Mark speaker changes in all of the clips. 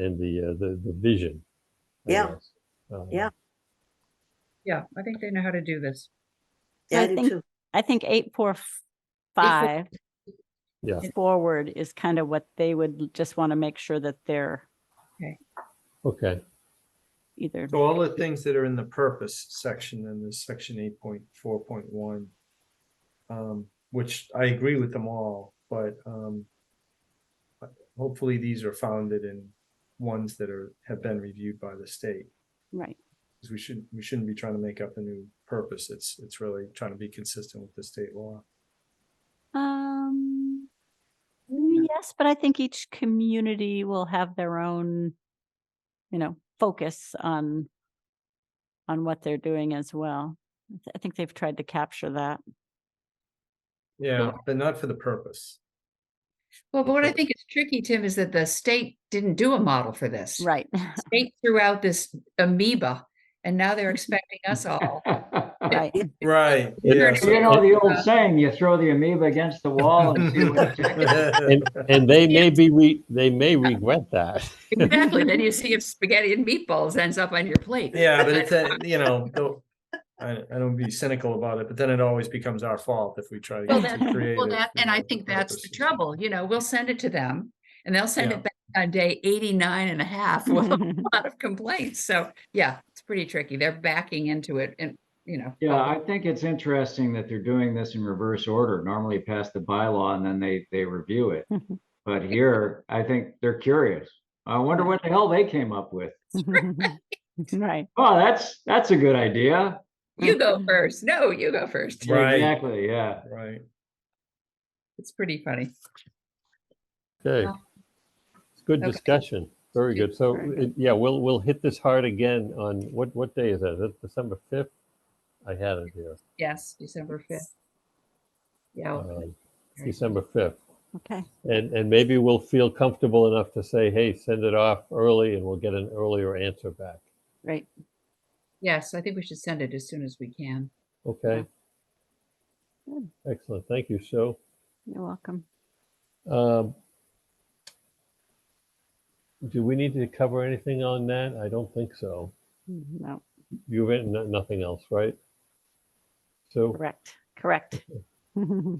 Speaker 1: and the, uh, the, the vision. I
Speaker 2: Yeah.
Speaker 1: guess. Uh,
Speaker 2: Yeah.
Speaker 3: Yeah, I think they know how to do this.
Speaker 2: Yeah,
Speaker 4: I
Speaker 2: I do
Speaker 4: think-
Speaker 2: too.
Speaker 4: I think eight, four, f- five
Speaker 1: Yeah,
Speaker 4: forward is kind of what they would l- just want to make sure that they're
Speaker 1: okay,
Speaker 4: either.
Speaker 5: So all the things that are in the purpose section in this section eight point four point one. Um, which I agree with them all, but um. but Hopefully, these are founded in ones that are, have been reviewed by the state.
Speaker 4: Right.
Speaker 5: 'Cause we shouldn't, we shouldn't be trying to make up a new purpose. It's, it's really trying to be consistent with the state law.
Speaker 4: Um, yes, but I think each community will have their own, you know, focus on on what they're doing as well. I th- I think they've tried to capture that.
Speaker 5: Yeah, but not for the purpose.
Speaker 3: Well, but what I think is tricky, Tim, is that the state didn't do a model for this.
Speaker 4: Right.
Speaker 3: State threw out this amoeba and now they're expecting us all.
Speaker 4: right.
Speaker 5: Right.
Speaker 1: yeah,
Speaker 3: so-
Speaker 6: You know the old saying, you throw the amoeba against the wall and see what sticks.
Speaker 1: and they may be, re- they may regret that.
Speaker 3: Exactly. Then you see if spaghetti and meatballs ends up on your plate.
Speaker 5: Yeah, but it's, a- you know, don't- I, I don't be cynical about it, but then it always becomes our fault if we try to
Speaker 3: Well,
Speaker 5: get
Speaker 3: that,
Speaker 5: too
Speaker 3: well,
Speaker 5: creative.
Speaker 3: that,
Speaker 5: you
Speaker 3: and I
Speaker 5: know,
Speaker 3: think
Speaker 5: for
Speaker 3: that's the
Speaker 5: purposes.
Speaker 3: trouble, you know, we'll send it to them and they'll send
Speaker 5: Yeah.
Speaker 3: it back on day 89 and a half with a lot of complaints. So, yeah, it's pretty tricky. They're backing into it and, you know.
Speaker 6: Yeah, I think it's interesting that they're doing this in reverse order. Normally pass the bylaw and then they, they review it. But here, I think they're curious. I wonder what the hell they came up with.
Speaker 4: right.
Speaker 6: Oh, that's, that's a good idea.
Speaker 3: You go first. No, you go first.
Speaker 5: Right.
Speaker 6: Exactly, yeah.
Speaker 5: Right.
Speaker 3: It's pretty funny.
Speaker 1: Okay.
Speaker 3: Wow.
Speaker 1: It's Good
Speaker 3: Okay.
Speaker 1: discussion. Very good. So,
Speaker 4: Very
Speaker 1: it- yeah, we'll, we'll hit this hard again on, what, what day is that? Is that December 5th? I had it here.
Speaker 3: Yes, December 5th. Yeah. well,
Speaker 1: um,
Speaker 3: very good.
Speaker 1: December 5th.
Speaker 4: Okay.
Speaker 1: And, and maybe we'll feel comfortable enough to say, hey, send it off early and we'll get an earlier answer back.
Speaker 4: Right.
Speaker 3: Yes, I think we should send it as soon as we can.
Speaker 1: Okay?
Speaker 4: Good.
Speaker 1: Excellent. Thank you, Sue.
Speaker 4: You're welcome.
Speaker 1: Um, Do we need to cover anything on that? I don't think so.
Speaker 4: No,
Speaker 1: You've written no- nothing else, right? So,
Speaker 4: correct. Correct.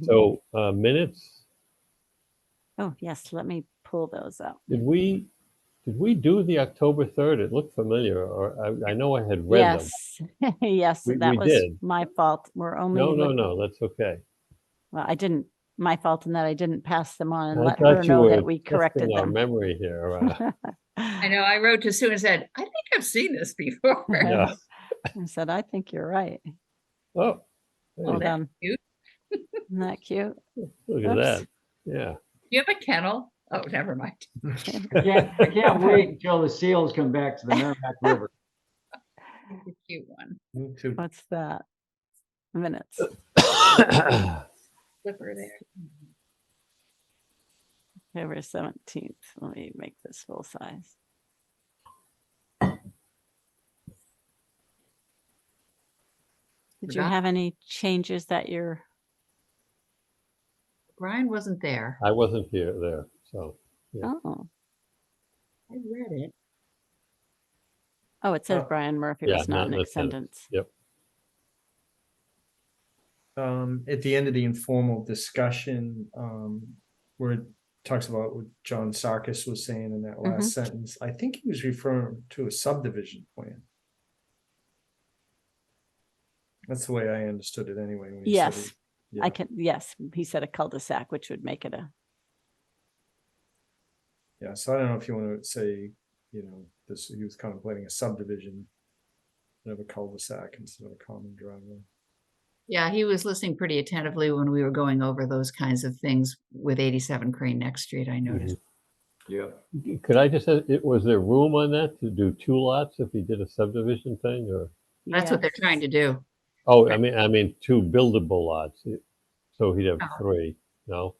Speaker 1: so uh, minutes,
Speaker 4: Oh, yes. Let me pull those up.
Speaker 1: did we, did we do the October 3rd? It looked familiar, or I, I know I had read them.
Speaker 4: Yes. Yes,
Speaker 1: We-
Speaker 4: that
Speaker 1: we
Speaker 4: was
Speaker 1: did.
Speaker 4: my fault. We're only.
Speaker 1: No, no,
Speaker 4: look-
Speaker 1: no, that's okay.
Speaker 4: Well, I didn't, my fault in that I didn't pass them on and
Speaker 1: I
Speaker 4: let her
Speaker 1: thought you
Speaker 4: know
Speaker 1: were
Speaker 4: that we corrected
Speaker 1: testing our
Speaker 4: them.
Speaker 1: memory here. uh,
Speaker 3: I know I wrote to Sue and said, I think I've seen this before.
Speaker 1: Yeah.
Speaker 4: I said, I think you're right.
Speaker 1: Oh, hey,
Speaker 4: Well done.
Speaker 3: cute.
Speaker 4: Isn't that cute?
Speaker 1: look at
Speaker 4: Oops.
Speaker 1: that. Yeah.
Speaker 3: You have a kennel? Oh, never mind.
Speaker 6: I can't, I can't wait until the seals come back to the Merrimack River.
Speaker 3: It's a Cute one.
Speaker 5: Me too.
Speaker 4: What's that? Minutes.
Speaker 3: Flipper there.
Speaker 4: October seventeenth. Let me make this full size. Did you
Speaker 3: Forgot.
Speaker 4: have any changes that you're,
Speaker 3: Brian wasn't there.
Speaker 1: I wasn't here there, so Yeah.
Speaker 4: oh,
Speaker 3: I read it.
Speaker 4: oh, it says
Speaker 5: Oh.
Speaker 4: Brian Murphy
Speaker 1: Yeah,
Speaker 4: was not
Speaker 1: not
Speaker 4: an
Speaker 1: in the sentence.
Speaker 4: attendance.
Speaker 5: Um, at the end of the informal discussion, um, where it talks about what John Sarkis was saying in that last
Speaker 3: Mm-hmm.
Speaker 5: sentence, I think he was referring to a subdivision plan. That's the way I understood it anyway. when he said
Speaker 4: Yes,
Speaker 5: it. Yeah.
Speaker 4: I can, yes, he said a cul-de-sac, which would make it a,
Speaker 5: Yeah, so I don't know if you want to say, you know, this, he was contemplating a subdivision of a cul-de-sac instead of a common driveway.
Speaker 3: Yeah, he was listening pretty attentively when we were going over those kinds of things with 87 Crane Next Street, I noticed.
Speaker 1: Mm-hmm.
Speaker 6: Yep.
Speaker 1: could I just, say, it was there room on that to do two lots if you did a subdivision thing or?
Speaker 3: That's what they're trying to do.
Speaker 1: Oh, I mean, I mean, two buildable lots, it- so he'd have
Speaker 3: No.
Speaker 1: three, no,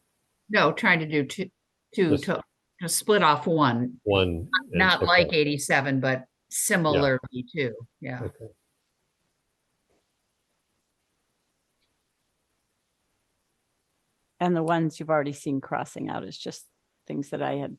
Speaker 3: No, trying to do two, two,
Speaker 1: Just-
Speaker 3: to, to split off one,
Speaker 1: one. and
Speaker 3: not
Speaker 1: so
Speaker 3: like
Speaker 1: forth.
Speaker 3: 87, but similarly to, yeah.
Speaker 1: Okay.
Speaker 4: And the ones you've already seen crossing out is just things that I had